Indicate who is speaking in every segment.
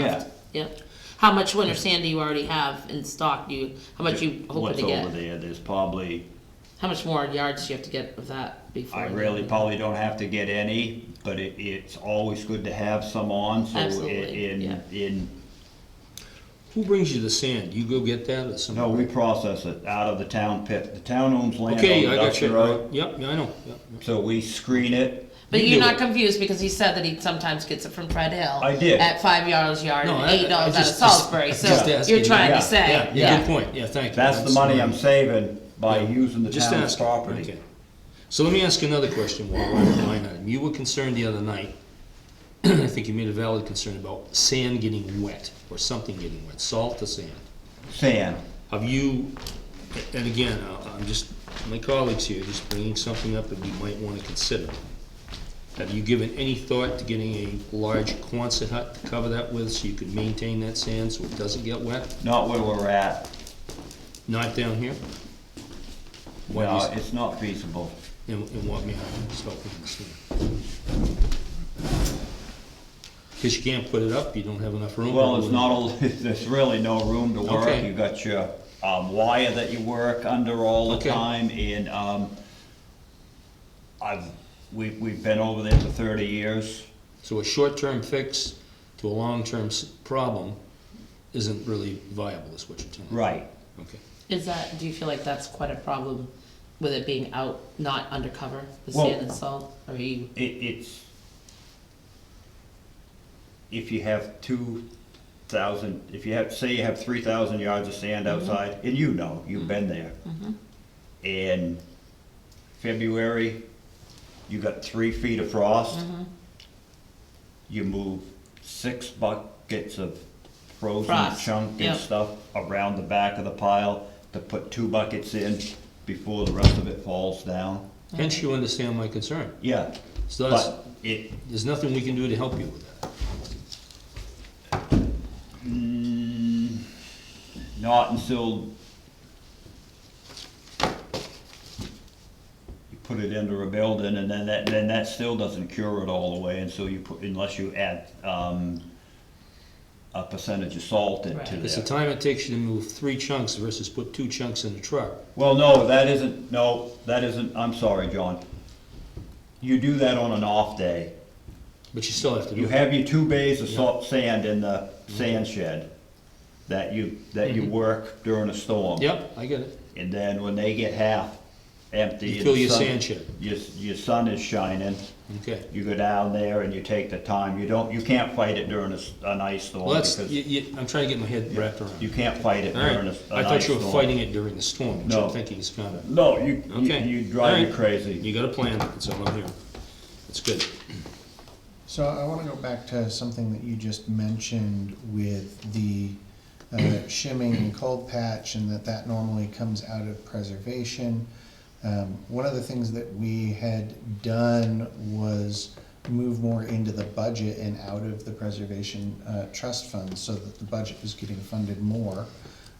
Speaker 1: Yeah.
Speaker 2: Yep. How much winter sand do you already have in stock? Do you, how much you hoping
Speaker 1: What's
Speaker 2: to
Speaker 1: over
Speaker 2: get?
Speaker 1: there, there's probably,
Speaker 2: How much more yards do you have to get of that before?
Speaker 1: I
Speaker 2: you-
Speaker 1: really probably don't have to get any, but it, it's always good to have some on, so i-
Speaker 2: Absolutely, yeah.
Speaker 1: in, in,
Speaker 3: Who brings you the sand? You go get that or
Speaker 1: no,
Speaker 3: somebody?
Speaker 1: we process it out of the town pit. The town owns land on
Speaker 3: Okay, I got
Speaker 1: Dusty
Speaker 3: you.
Speaker 1: Road,
Speaker 3: Right. Yep, yeah, I know. Yep, yep.
Speaker 1: so we screen it.
Speaker 2: But
Speaker 3: You
Speaker 2: you're
Speaker 3: do
Speaker 2: not
Speaker 3: it.
Speaker 2: confused because he said that he sometimes gets it from Fred Hill.
Speaker 1: I did.
Speaker 2: At five dollars yard
Speaker 3: No,
Speaker 2: and
Speaker 3: I-
Speaker 2: eight dollars
Speaker 3: I
Speaker 2: out of
Speaker 3: just-
Speaker 2: Salisbury,
Speaker 3: just
Speaker 2: so
Speaker 3: asking,
Speaker 2: you're trying
Speaker 1: yeah,
Speaker 2: to say,
Speaker 3: Yeah, yeah, good
Speaker 2: yeah.
Speaker 3: point. Yeah, thank you.
Speaker 1: That's the money I'm saving by
Speaker 3: Yeah.
Speaker 1: using the
Speaker 3: Just
Speaker 1: town's
Speaker 3: asking.
Speaker 1: property.
Speaker 3: Okay. So let me ask you another question while we're on the line item. You were concerned the other night, I think you made a valid concern about sand getting wet or something getting wet, salt or sand.
Speaker 1: Sand,
Speaker 3: Have you, and again, I- I'm just, my colleagues here, just bringing something up that you might want to consider. Have you given any thought to getting a large Quonset hut to cover that with so you can maintain that sand so it doesn't get wet?
Speaker 1: not where we're at.
Speaker 3: Not down here? What
Speaker 1: No,
Speaker 3: is-
Speaker 1: it's not feasible.
Speaker 3: And, and what may I stop with this here? Cause you can't put it up, you don't have enough room.
Speaker 1: Well, it's not, a- there's really no room to work,
Speaker 3: Okay.
Speaker 1: you got your, um, wire that you work under all the
Speaker 3: Okay.
Speaker 1: time, and, um, I've, we, we've been over there for thirty years,
Speaker 3: So a short-term fix to a long-term s- problem isn't really viable, is what you're telling me?
Speaker 1: right,
Speaker 3: Okay.
Speaker 2: Is that, do you feel like that's quite a problem with it being out, not undercover, the
Speaker 1: Well-
Speaker 2: sand and salt? Or Are you,
Speaker 1: it, it's, if you have two thousand, if you have, say you have three thousand yards of sand
Speaker 2: Mm-hmm.
Speaker 1: outside, and you know, you've been there. In February, you got three feet of frost.
Speaker 2: Mm-hmm.
Speaker 1: You move six buckets of frozen
Speaker 2: Frost,
Speaker 1: chunk
Speaker 2: yep.
Speaker 1: and stuff around the back of the pile to put two buckets in before the rest of it falls down.
Speaker 3: Hence, you understand my concern.
Speaker 1: Yeah,
Speaker 3: So that's,
Speaker 1: but it,
Speaker 3: there's nothing we can do to help you with that.
Speaker 1: Mm, Not until you put it under a building and then that, then that still doesn't cure it all the way until you put, unless you add, um, a percentage of salt into
Speaker 2: Right.
Speaker 3: It's the
Speaker 1: there.
Speaker 3: time it takes you to move three chunks versus put two chunks in a truck.
Speaker 1: Well, no, that isn't, no, that isn't, I'm sorry, John. You do that on an off day.
Speaker 3: But you still have to do
Speaker 1: You
Speaker 3: it.
Speaker 1: have your two bays of salt, sand in the
Speaker 3: Mm-hmm.
Speaker 1: sand shed that you, that you work during a storm.
Speaker 3: Yep, I get it.
Speaker 1: And then when they get half empty.
Speaker 3: You
Speaker 1: and
Speaker 3: fill
Speaker 1: the
Speaker 3: your
Speaker 1: sun-
Speaker 3: sand shed.
Speaker 1: Your, your sun is shining,
Speaker 3: Okay.
Speaker 1: you go down there and you take the time, you don't, you can't fight it during a, s- an ice storm.
Speaker 3: Well, that's,
Speaker 1: because
Speaker 3: you, you, I'm trying to get my head wrapped
Speaker 1: You
Speaker 3: around.
Speaker 1: can't fight it
Speaker 3: All
Speaker 1: during a,
Speaker 3: right,
Speaker 1: s- an
Speaker 3: I thought
Speaker 1: ice
Speaker 3: you were
Speaker 1: storm.
Speaker 3: fighting it during the storm, which
Speaker 1: No.
Speaker 3: I'm thinking is kinda,
Speaker 1: No, you, you,
Speaker 3: okay.
Speaker 1: you drive
Speaker 3: All
Speaker 1: me
Speaker 3: right.
Speaker 1: crazy.
Speaker 3: You got a plan, that's all I'm hearing. That's good.
Speaker 4: So I want to go back to something that you just mentioned with the uh, shimming and cold patch and that that normally comes out of preservation. Um, One of the things that we had done was move more into the budget and out of the preservation uh, trust fund so that the budget was getting funded more.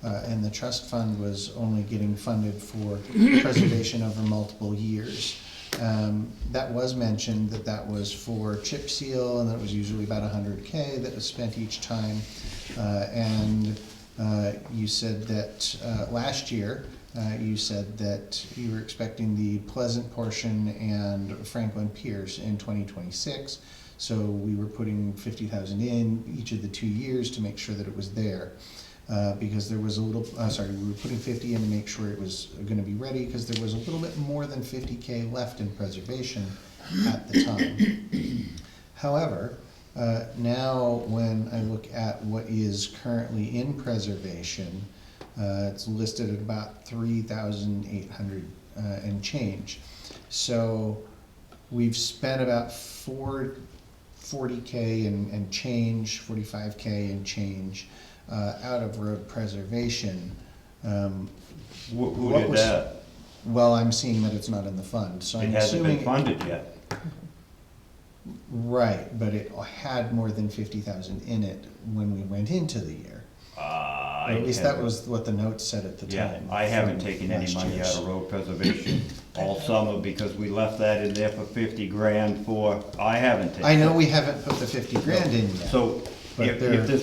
Speaker 4: Uh, And the trust fund was only getting funded for preservation over multiple years. Um, that was mentioned, that that was for chip seal, and that was usually about hundred K that was spent each time. Uh, and, uh, you said that, uh, last year, uh, you said that you were expecting the Pleasant portion and Franklin Pierce in twenty twenty-six. So we were putting fifty thousand in each of the two years to make sure that it was there. Uh, because there was a little, uh, sorry, we were putting fifty in to make sure it was gonna be ready, cause there was a little bit more than fifty K left in preservation at the time. However, uh, now when I look at what is currently in preservation, uh, it's listed at about three thousand eight hundred uh, and change. So we've spent about four, forty K and, and change, forty-five K and change uh, out of road preservation. Um,
Speaker 1: Who, who
Speaker 4: What
Speaker 1: did
Speaker 4: was-
Speaker 1: that?
Speaker 4: Well, I'm seeing that it's not in the fund, so
Speaker 1: It
Speaker 4: I'm
Speaker 1: hasn't been
Speaker 4: assuming.
Speaker 1: funded yet.
Speaker 4: Right, but it had more than fifty thousand in it when we went into the year.
Speaker 1: Uh,
Speaker 4: Or
Speaker 1: I
Speaker 4: at least that
Speaker 1: haven't-
Speaker 4: was what the note said at the
Speaker 1: Yeah,
Speaker 4: time.
Speaker 1: I haven't
Speaker 4: from
Speaker 1: taken any
Speaker 4: last
Speaker 1: money out
Speaker 4: year's.
Speaker 1: of road preservation all summer because we left that in there for fifty grand for, I haven't taken.
Speaker 4: I know we haven't put the fifty grand in yet.
Speaker 1: So
Speaker 4: But
Speaker 1: if,
Speaker 4: there-
Speaker 1: if this